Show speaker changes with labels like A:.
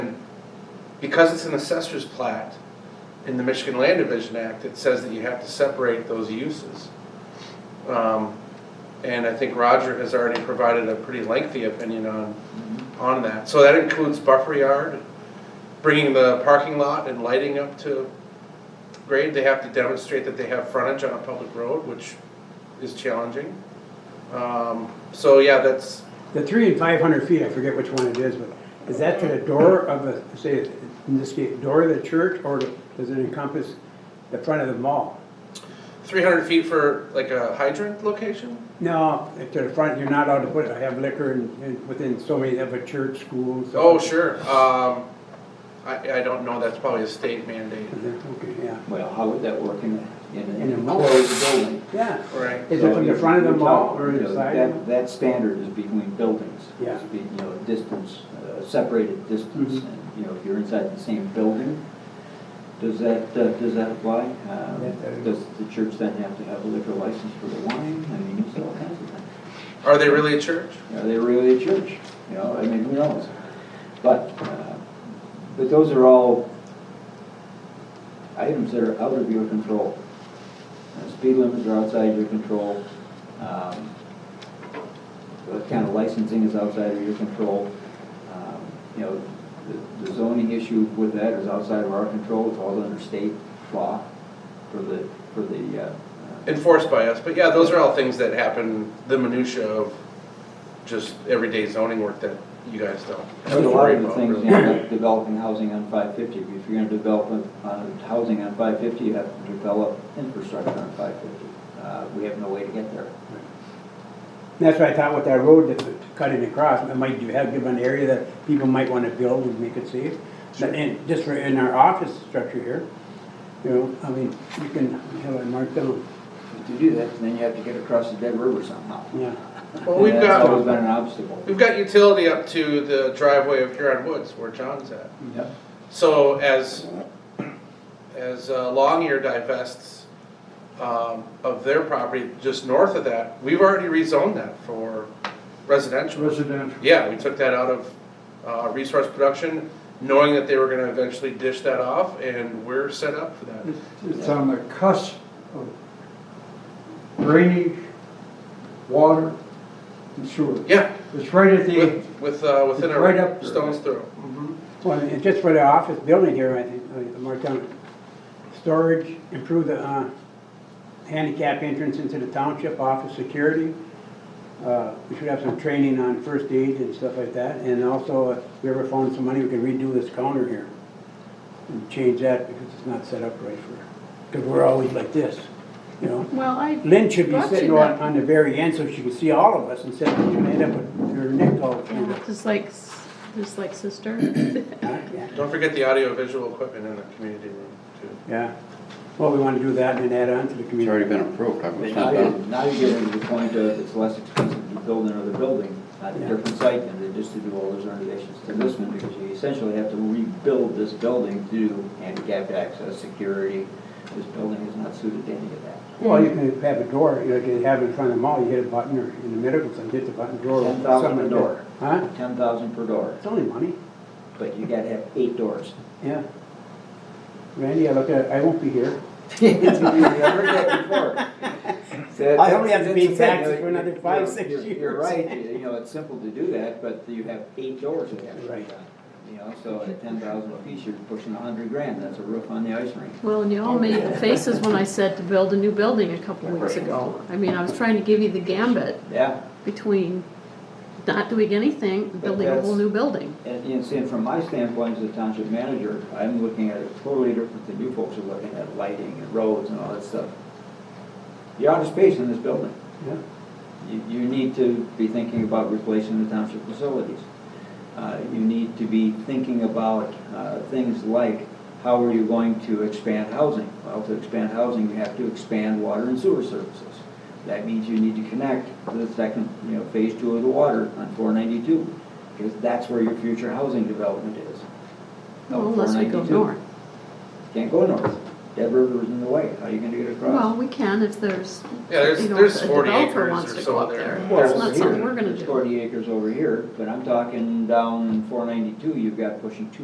A: because it's an assessor's plat, in the Michigan Land Division Act, it says that you have to separate those uses. Um, And I think Roger has already provided a pretty lengthy opinion on, on that. So that includes buffer yard, bringing the parking lot and lighting up to grade. They have to demonstrate that they have frontage on a public road, which is challenging. Um, So yeah, that's,
B: The three and five hundred feet, I forget which one it is, but is that to the door of a, say, in this case, door of the church, or does it encompass the front of the mall?
A: three hundred feet for like a hydrant location?
B: No, to the front, you're not allowed to put it, I have liquor and, and within so many of a church, school, so.
A: Oh, sure, um, I, I don't know, that's probably a state mandate,
B: Is it? Okay, yeah,
C: Well, how would that work in a, in
B: In
C: an
B: a mall.
C: enclosed building?
B: yeah,
A: right?
B: is it from the front of the
C: You're
B: mall
C: talking,
B: or
C: you
B: the
C: know,
B: side? of
C: That, that standard is between buildings.
B: Yeah.
C: It's be- You know, distance, uh, separated distance,
B: Mhm.
C: and, you know, if you're inside the same building, does that, uh, does that apply? Um,
B: Yeah, that-
C: Does the church then have to have a liquor license for the wine? I mean, it's all kinds of things.
A: Are they really a church?
C: Are they really a church? You know, I mean, who knows? But, uh, but those are all items that are out of your control. Uh, Speed limits are outside your control. Um, What kind of licensing is outside of your control? Um, You know, the- the zoning issue with that is outside of our control. It falls under state law for the, for the, uh, uh,
A: Enforced by us, but yeah, those are all things that happen, the minutia of just everyday zoning work that you guys don't
C: I
A: have
C: mean,
A: to
C: a lot
A: worry
C: of the
A: about.
C: things, you
A: really.
C: know, like developing housing on five fifty, if you're gonna develop a- uh, housing on five fifty, you have to develop infrastructure on five fifty. Uh, we have no way to get there.
B: That's what I thought with that road that's cutting across, it might, you have given an area that people might wanna build and make it safe. But in, just for, in our office structure here, you know, I mean, you can have it marked down,
C: If you do that, then you have to get across the Dead River somehow.
B: yeah.
A: Well, we've
C: And That's always
A: got,
C: been an obstacle.
A: we've got utility up to the driveway of Huron Woods where John's at.
C: Yep.
A: So as, as uh, Longyear divests um, of their property just north of that, we've already rezoned that for residential.
D: Residential.
A: Yeah, we took that out of uh, resource production, knowing that they were gonna eventually dish that off, and we're set up for that.
D: It's- It's um, on the cusp of drainage, water, and sewer.
A: Yeah,
D: It's right at the,
A: with, with, uh, within
D: It's right up
A: a
D: there.
A: stone's throw.
B: Well, and just for the office building here, I think, uh, marked down, storage, improve the, uh, handicap entrance into the township, office security. Uh, we should have some training on first aid and stuff like that, and also, uh, if we ever found some money, we could redo this counter here. And change that, because it's not set up right for, because we're always like this, you know?
E: Well, I.
B: Lynn should be
E: brought you
B: sitting on,
E: that.
B: on the very end, so she can see all of us, instead of you end up with your neck all
E: Yeah,
B: through.
E: Just like, s- just like sister.
B: Yeah.
A: Don't forget the audio-visual equipment in the community room, too.
B: Yeah, well, we want to do that and then add on to the community.
F: It's already been approved, I
C: But
F: was
C: now
F: not
C: you're,
F: done.
C: now you're getting to the point of it's less expensive to build another building on a
B: Yeah.
C: different site than it is to do all those renovations to this one, because you essentially have to rebuild this building to do handicapped access, security. This building is not suited to any of that.
B: Well, you can have a door, you know, you can have it in front of the mall, you hit a button or in the medical center, hit the button, door. opens,
C: $10,000
B: something like
C: a door.
B: that. Huh?
C: Ten thousand per door,
B: It's only money,
C: but you gotta have eight doors.
B: yeah. Randy, I look at, I won't be here.
C: You've heard that before. So
B: I only have to
C: that's
B: pay
C: the thing,
B: taxes
C: you know,
B: for another
C: you're-
B: five, six
C: you're- You're
B: years.
C: right, you know, it's simple to do that, but you have eight doors that have to be done.
B: Right.
C: You know, so at ten thousand apiece, you're pushing a hundred grand, that's a roof on the ice rink.
E: Well, and you all made faces when I said to build a new building a couple weeks ago. I mean, I was trying to give you the gambit
C: Yeah,
E: between not doing anything, building a whole new building.
C: and, and seeing from my standpoint as a township manager, I'm looking at it totally different than you folks are looking at lighting and roads and all that stuff. You're out of space in this building.
B: Yeah.
C: You, you need to be thinking about replacing the township facilities. Uh, You need to be thinking about uh, things like, how are you going to expand housing? Well, to expand housing, you have to expand water and sewer services. That means you need to connect to the second, you know, phase two of the water on 492, because that's where your future housing development is. No,
E: Well, unless we go
C: 492.
E: north.
C: Can't go north. Dead River is in the way. How are you going to get across?
E: Well, we can if there's,
A: Yeah, there's,
E: You know,
A: there's
E: if a
A: forty
E: developer
A: acres
E: wants
A: or
E: to go
A: so
E: up
A: there.
E: there.
C: Well,
E: That's not
C: over
E: something
C: here,
E: we're gonna
C: there's
E: do.
C: Forty acres over here, but I'm talking down four ninety-two, you've got pushing two